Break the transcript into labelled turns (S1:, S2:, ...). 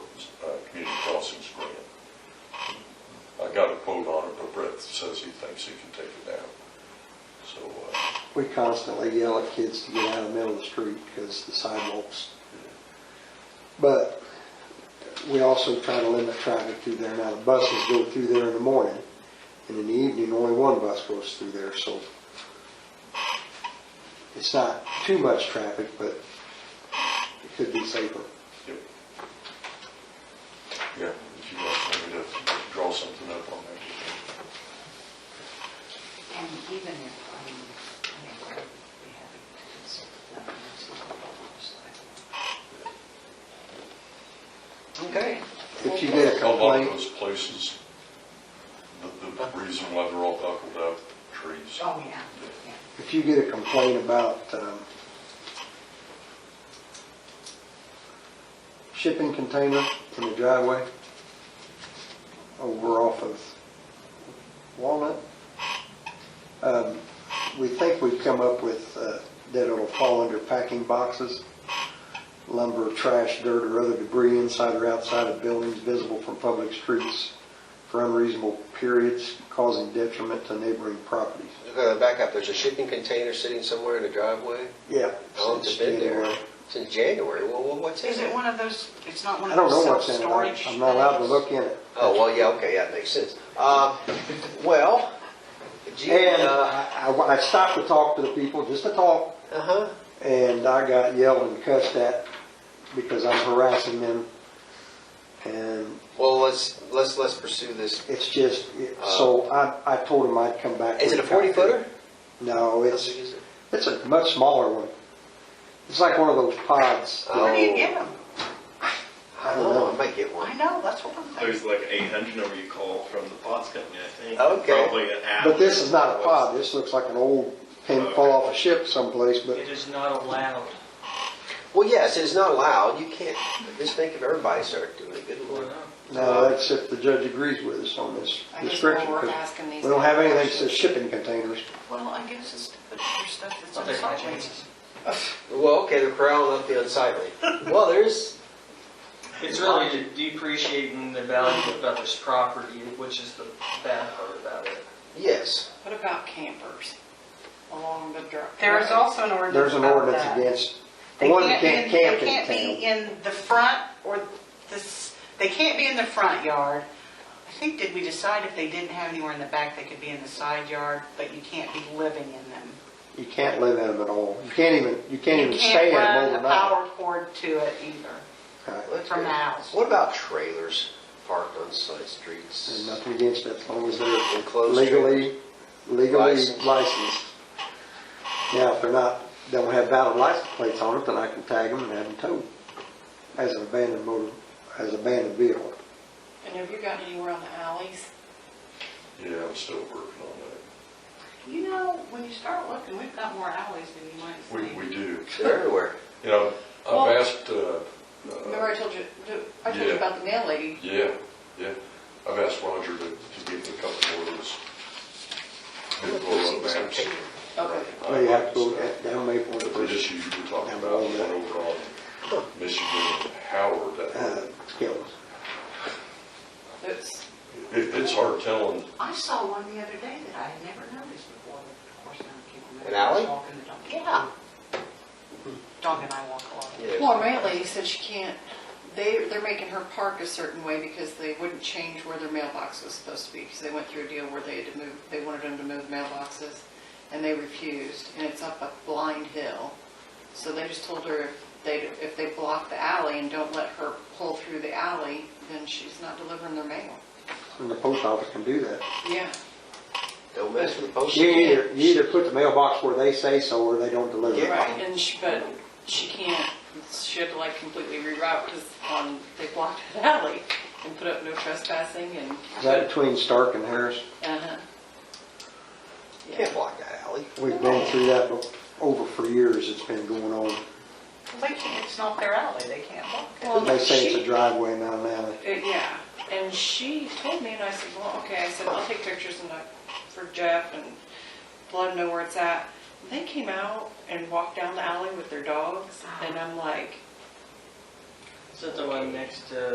S1: uh, crossings grant. I got a quote on it, but Brett says he thinks he can take it down. So, uh,
S2: We constantly yell at kids to get out of the middle of the street because the sidewalks. But we also try to limit traffic through there. Now, the buses go through there in the morning, and in the evening, only one bus goes through there, so it's not too much traffic, but it could be safer.
S1: yep. Yeah, if you want me to draw something up on that.
S3: And even if, I mean, I mean, we have to consider that as a sidewalk.
S4: Okay.
S2: If you get a
S1: A lot of
S2: complaint,
S1: those places, the, the reason why they're all buckled up, trees.
S3: Oh, yeah, yeah.
S2: if you get a complaint about um, shipping container in the driveway over off of Walnut, um, we think we've come up with uh, that it'll fall under packing boxes, lumber, trash, dirt, or other debris inside or outside of buildings visible from public streets for unreasonable periods causing detriment to neighboring properties.
S4: Uh, Back up, there's a shipping container sitting somewhere in the driveway?
S2: Yeah.
S4: How long's it Oh, been there? Since January, well, well, what's in
S5: Is it
S4: it?
S5: one of those, it's not one
S2: I
S5: of
S2: don't
S5: those
S2: know what's in it.
S5: self-storage?
S2: I- I'm not allowed to
S5: things?
S2: look in it.
S4: Oh, well, yeah, okay, yeah, makes sense. Uh, well, gee,
S2: And
S4: uh,
S2: I, I- I stopped to talk to the people, just to talk,
S4: uh-huh,
S2: and I got yelled and cussed at because I'm harassing them. And
S4: well, let's, let's, let's pursue this.
S2: it's just, it- so I, I told them I'd come back.
S4: Uh, Is it a
S2: with
S4: forty footer?
S2: concrete. No,
S4: How big
S2: it's,
S4: is it?
S2: it's a much smaller one. It's like one of those pods.
S5: Where do you
S4: Oh,
S5: get them?
S4: I don't know, Oh, I might get
S5: I
S4: one.
S5: know, that's what I'm thinking.
S6: There's like 800 number you call from the Potts Company, I think.
S4: Okay.
S6: Probably an app.
S2: But this is not a pod. This looks like an old pin fall off a ship someplace, but
S7: It is not allowed.
S4: Well, yes, it's not allowed, you can't, just think if everybody started doing it, good
S7: Or
S4: lord.
S7: not.
S2: No, that's if the judge agrees with us on this
S5: I guess
S2: description.
S5: we're
S2: 'cause
S5: asking these
S2: We don't have anything that says shipping containers.
S5: Well, I guess it's the your stuff that's
S7: I'll
S5: on the
S7: take my
S5: sideways.
S7: chances.
S4: Well, okay, they're crowding up the unsightly. Well, there's,
S7: It's really depreciating the value of others' property, which is the bad part about it.
S4: yes.
S5: What about campers along the drive?
S8: There is also an ordinance
S2: There's an
S8: about
S2: ordinance
S8: that.
S2: against, the
S8: They
S2: one that
S8: can't,
S2: can't
S8: be-
S2: camp
S8: they
S2: in
S8: can't be
S2: town.
S8: in the front or this, they can't be in the front yard.
S5: I think, did we decide if they didn't have anywhere in the back, they could be in the side yard, but you can't be living in them?
S2: You can't live in them at all. You can't even, you can't
S5: You
S2: even stay
S5: can't
S2: in them
S5: run a
S2: overnight.
S5: power cord to it either,
S2: Right.
S4: Well, that's
S5: from the
S4: good.
S5: house.
S4: What about trailers parked on side
S2: There's
S4: streets?
S2: nothing against it, as long as they're
S4: Enclosed
S2: legally, legally
S4: Licensed.
S2: licensed. Now, if they're not, don't have valid license plates on it, then I can tag them and have them towed as an abandoned motor, as abandoned vehicle.
S8: And have you got anywhere on the alleys?
S1: Yeah, I'm still working on
S5: You know, when you start looking, we've got more alleys than you might
S1: that.
S5: think.
S1: We, we do.
S4: They're everywhere.
S1: You know,
S8: Well-
S1: I've asked, uh,
S8: Remember
S1: uh,
S8: I told you, I told
S1: Yeah.
S8: you about the nail lady?
S1: yeah, yeah, I've asked Roger to, to give me a couple more of those. new roll-up maps.
S8: Okay.
S2: Well, you have to go down Maple
S1: But
S2: and
S1: the issue you were talking about, the one over on Michigan and Howard,
S2: uh,
S1: that,
S2: kill them.
S8: It's,
S1: it, it's hard telling,
S5: I saw one the other day that I had never noticed before, but of course, now I can't remember.
S4: An alley?
S5: I was walking the dog. Yeah.
S2: Hmm.
S5: Dog and I walk a lot.
S8: well, our mail lady said she can't, they, they're making her park a certain way because they wouldn't change where their mailbox was supposed to be. Because they went through a deal where they had to move, they wanted them to move mailboxes and they refused. And it's up a blind hill. So they just told her if they, if they block the alley and don't let her pull through the alley, then she's not delivering their mail.
S2: And the post office can do that.
S8: Yeah.
S4: Don't mess with the post.
S2: You either, you either put the mailbox where they say so, or they don't deliver.
S4: Yeah.
S8: Right, and she, but she can't, she had to like completely reroute because on, they blocked that alley and put up no trespassing and,
S2: Is that between Stark and Harris?
S8: uh-huh.
S4: You
S8: Yeah,
S4: can't block that alley.
S2: We've been through that over for years, it's been going on.
S5: They can't, it's not their alley, they can't walk it.
S8: Well,
S2: They say it's a
S8: she-
S2: driveway, not an alley.
S8: Uh, Yeah, and she told me, and I said, well, okay, I said, I'll take pictures and I, for Jeff and let him know where it's at. They came out and walked down the alley with their dogs, and I'm like,
S7: Is that the one next to